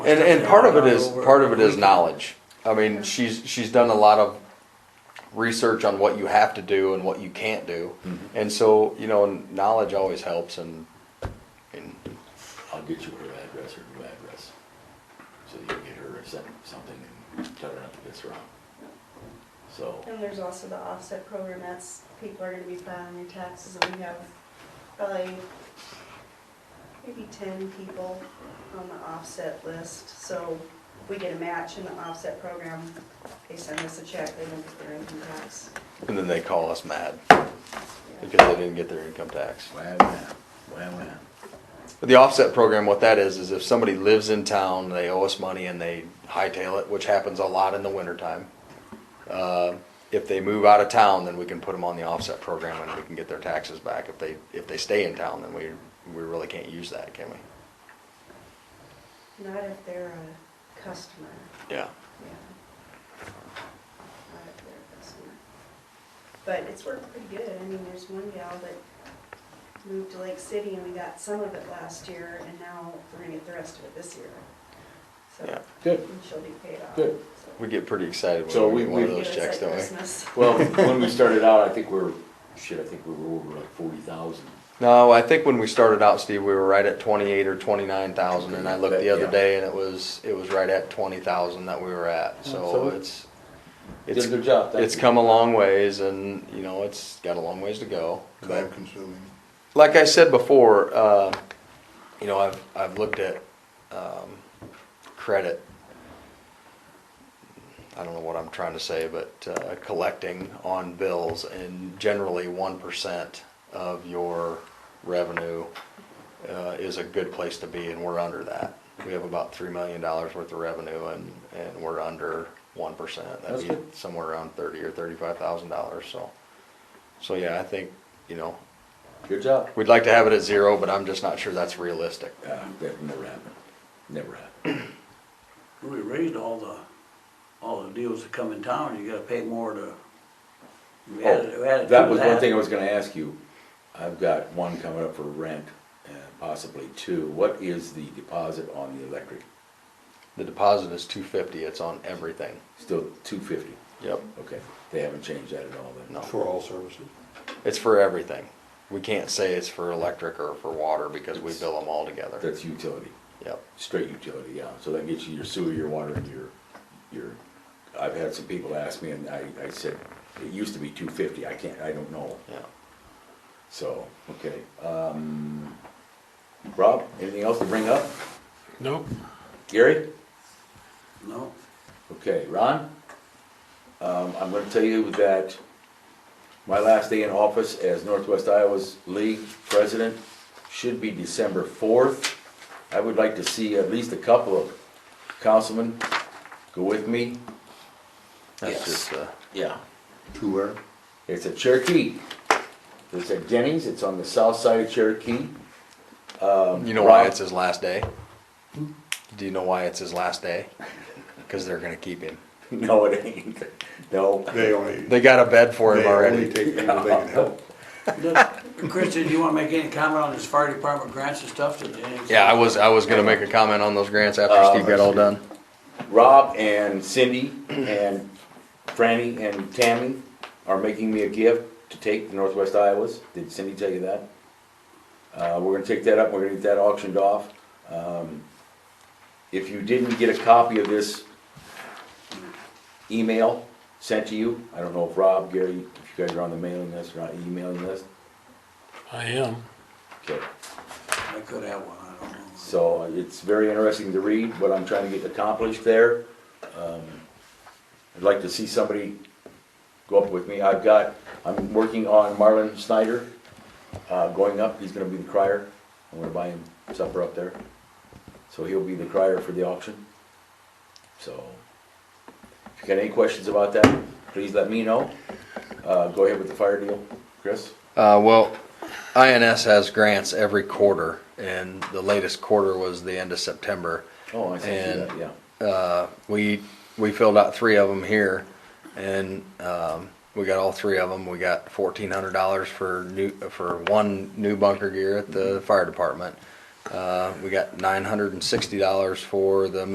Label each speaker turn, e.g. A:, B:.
A: And, and part of it is, part of it is knowledge. I mean, she's, she's done a lot of research on what you have to do and what you can't do. And so, you know, knowledge always helps and, and,
B: I'll get you her address, her new address. So you can get her or send something and tell her not to piss around. So,
C: And there's also the offset program, that's, people are gonna be filing their taxes, and we have probably maybe ten people on the offset list, so we get a match in the offset program, they send us a check, they don't get their income tax.
A: and then they call us mad
C: Yeah.
A: because they didn't get their income tax.
B: wham, wham, wham, wham.
A: The offset program, what that is, is if somebody lives in town, they owe us money and they hightail it, which happens a lot in the wintertime. Uh, If they move out of town, then we can put them on the offset program and we can get their taxes back. If they, if they stay in town, then we, we really can't use that, can we?
C: Not if they're a customer,
A: Yeah.
C: yeah. Not if they're a customer. But it's worked pretty good, I mean, there's one gal that moved to Lake City, and we got some of it last year, and now we're gonna get the rest of it this year.
A: Yeah.
C: So,
B: Good.
C: and she'll be paid off.
B: Good.
C: so.
A: We get pretty excited
B: So
A: when we
B: we-
A: get one of
B: we-
A: those
C: Give us
A: checks,
C: that
A: don't we?
C: Christmas.
B: Well, when we started out, I think we we're, shit, I think we were over like forty thousand.
A: No, I think when we started out, Steve, we were right at twenty-eight or twenty-nine thousand, and I looked the other
B: Yeah.
A: day and it was, it was right at twenty thousand that we were at, so
B: So-
A: it's.
B: Did
A: it's-
B: a good job, thank
A: It's
B: you.
A: come a long ways and, you know, it's got a long ways to go.
D: time
A: But
D: consuming.
A: Like I said before, uh, you know, I've, I've looked at, um, credit. I don't know what I'm trying to say, but, uh, collecting on bills and generally one percent of your revenue, uh, is a good place to be and we're under that. We have about three million dollars worth of revenue and, and we're under one percent.
B: That's
A: That'd be
B: good.
A: somewhere around thirty or thirty-five thousand dollars, so. So, yeah, I think, you know,
B: Good job.
A: we'd like to have it at zero, but I'm just not sure that's realistic.
B: Uh, that never happened, never happened.
E: We raised all the, all the deals that come in town, you gotta pay more to. we added- we added to
B: Oh, That was one thing I was gonna ask you. I've got one coming up for rent and possibly two. What is the deposit on the electric?
A: The deposit is two fifty, it's on everything.
B: Still two fifty?
A: Yep.
B: Okay, they haven't changed that at all then?
A: No.
D: For all services.
A: It's for everything. We can't say it's for electric or for water because we bill them all together.
B: That's utility,
A: Yep.
B: straight utility, yeah. So that gets you your sewer, your water, and your, your, I've had some people ask me and I, I said, it used to be two fifty, I can't, I don't know.
A: Yeah.
B: So, okay, um, Rob, anything else to bring up?
F: Nope.
B: Gary?
E: No,
B: Okay, Ron? Um, I'm gonna tell you that my last day in office as Northwest Iowa's League President should be December fourth. I would like to see at least a couple of councilmen go with me.
A: That's
B: Yes.
A: just, uh,
B: Yeah.
D: To where?
B: It's at Cherokee. It's at Denny's, it's on the south side of Cherokee.
A: you know why
B: Um, Rob? Hmm?
A: it's his last day? Do you know why it's his last day? Cause they're gonna keep him.
B: No, it ain't, no.
D: They only,
A: They got a bed for him
D: they only
A: already.
D: take people they can help.
E: Kristen, do you wanna make any comment on this fire department grants and stuff that?
A: Yeah, I was, I was gonna make a comment on those grants after Steve got
B: Um,
A: all done.
B: Rob and Cindy and Franny and Tammy are making me a gift to take to Northwest Iowa's. Did Cindy tell you that? Uh, we're gonna take that up, we're gonna get that auctioned off. Um, If you didn't get a copy of this email sent to you, I don't know if Rob, Gary, if you guys are on the mailing list or not emailing list.
F: I am.
B: Okay,
E: I could have one, I don't know.
B: so it's very interesting to read what I'm trying to get accomplished there. Um, I'd like to see somebody go up with me. I've got, I'm working on Marlon Snyder, uh, going up. He's gonna be the crier. I'm gonna buy him supper up there. So he'll be the crier for the auction. So, if you got any questions about that, please let me know. Uh, go ahead with the fire deal, Chris.
A: Uh, well, INS has grants every quarter, and the latest quarter was the end of September.
B: Oh, I see
A: And-
B: that, yeah.
A: Uh, we, we filled out three of them here, and, um, we got all three of them. We got fourteen hundred dollars for new, for one new bunker gear at the fire department. Uh, we got nine hundred and sixty dollars for the